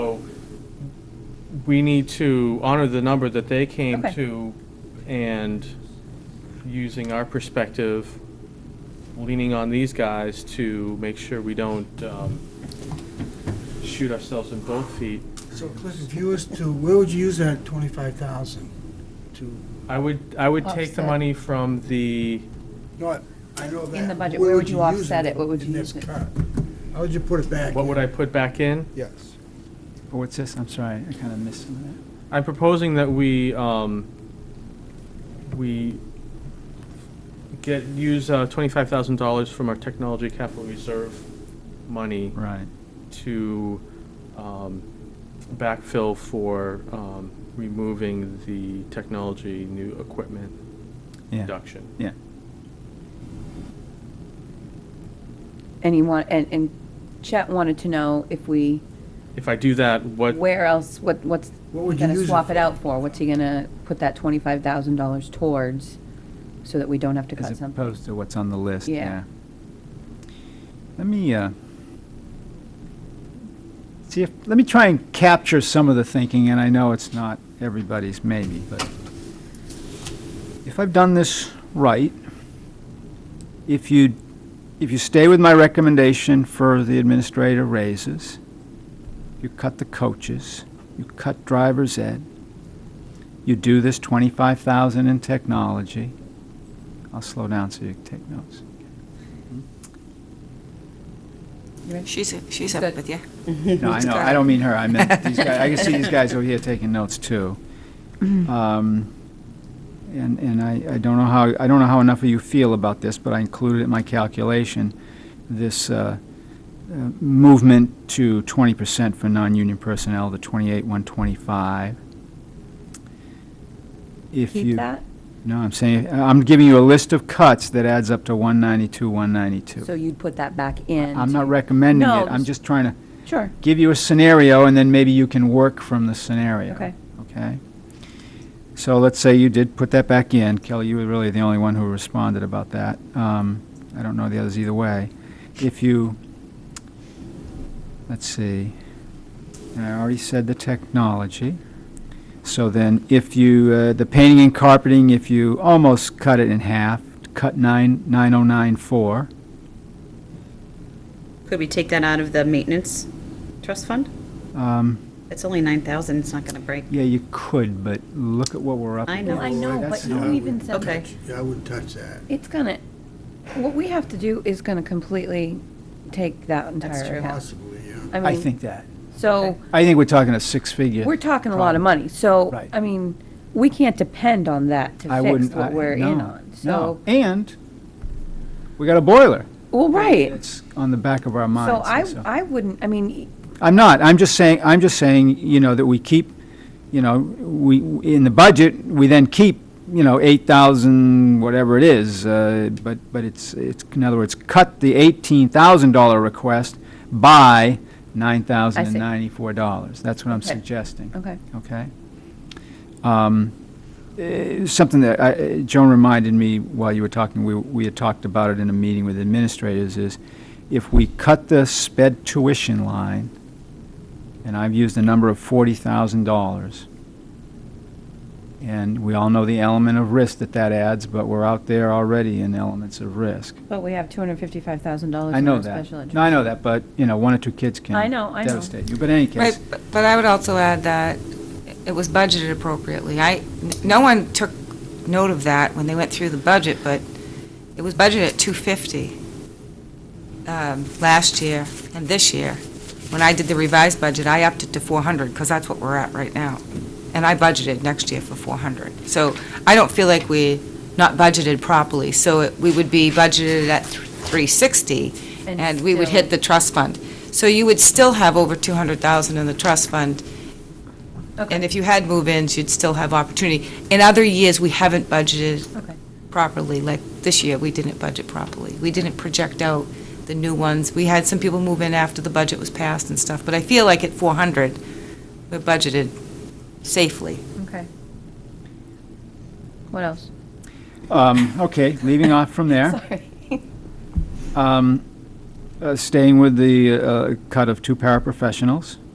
we need to honor the number that they came Okay. to and using our perspective, leaning on these guys to make sure we don't um, shoot ourselves in both feet. So Cliff, if you was to, where would you use that twenty-five thousand? To, I would, I would take the Offset. money from the, not, I know that. In the budget, where would you use offset it? What would in you this use it? cut? How would you put it back? what would I put back in? Yes. But What's this? I'm sorry, I kind of missed some of that. I'm proposing that we, um, we get, use uh, $25,000 from our technology capital reserve money Right. to um, backfill for um, removing the technology new equipment Yeah. deduction. Yeah. And you want, and, and Chet wanted to know if we, If I do that, what, where else, what, what's, What would you gonna use it swap it for? out for? What's he gonna put that twenty-five thousand dollars towards, so that we don't have to cut As something? opposed to what's on the list, Yeah. yeah. Let me, uh, see if, let me try and capture some of the thinking, and I know it's not everybody's maybe, but if I've done this right, if you, if you stay with my recommendation for the administrator raises, you cut the coaches, you cut driver's ed, you do this twenty-five thousand in technology, I'll slow down so you can take notes. She's, she's up Good. with you. No, I know, I don't mean her, I meant these guys, I can see these guys over here taking notes too. Mm-hmm. Um, And, and I, I don't know how, I don't know how enough of you feel about this, but I included in my calculation, this uh, uh, movement to twenty percent for non-union personnel, the twenty-eight, one twenty-five. If you Keep that, No, I'm saying, I'm giving you a list of cuts that adds up to one ninety-two, one ninety-two. so you'd put that back in? I'm not to- recommending No, it, I'm just- just trying to Sure, give you a scenario, and then maybe you can work from the scenario. okay. Okay? So let's say you did put that back in. Kelly, you were really the only one who responded about that. Um, I don't know the others either way. If you, let's see, and I already said the technology. So then, if you, uh, the painting and carpeting, if you almost cut it in half, cut nine, nine oh nine four. Could we take that out of the maintenance trust fund? Um, It's only 9,000, it's not going to break. Yeah, you could, but look at what we're up I against. know. Well, I know, but That's- you even said Okay. Yeah, I wouldn't touch that. It's gonna, what we have to do is gonna completely take that That's entire true. account. Possibly, yeah. I I mean, think that. so, I think we're talking a six-figure. we're talking a lot of money, so, Right. I mean, we can't depend on that I to fix wouldn't. I- what we're in no, on, no. so. And we got a boiler. Well, right, It's on the back of our so minds. I, and so- I wouldn't, I mean, e, I'm not, I'm just saying, I'm just saying, you know, that we keep, you know, we, in the budget, we then keep, you know, eight thousand, whatever it is, uh, but, but it's, it's, in other words, cut the eighteen thousand dollar request by nine thousand and ninety-four dollars. That's what I'm Okay. suggesting, okay, okay? Um, eh, Something that I, eh, Joan reminded me while you were talking, we, we had talked about it in a meeting with administrators, is if we cut the sped tuition line, and I've used a number of forty thousand dollars, and we all know the element of risk that that adds, but we're out there already in elements of risk. but we have two hundred fifty-five thousand dollars I in know our that. special education. No, I know that, but, you know, one or two kids can I know, I know. devastate you, but in any Right, case, but- but I would also add that it was budgeted appropriately. I, n- no one took note of that when they went through the budget, but it was budgeted at 250 um, last year and this year. When I did the revised budget, I upped it to 400, because that's what we're at right now. And I budgeted next year for 400. So I don't feel like we not budgeted properly, so it- we would be budgeted at th- 360, And and we would still- hit the trust fund. So you would still have over 200,000 in the trust fund. Okay. And if you had move-ins, you'd still have opportunity. In other years, we haven't budgeted Okay. properly, like this year, we didn't budget properly. We didn't project out the new ones. We had some people move in after the budget was passed and stuff, but I feel like at 400, we're budgeted safely. Okay. What else? um, okay, leaving off from there. Sorry. Um, uh, Staying with the uh, cut of two paraprofessionals.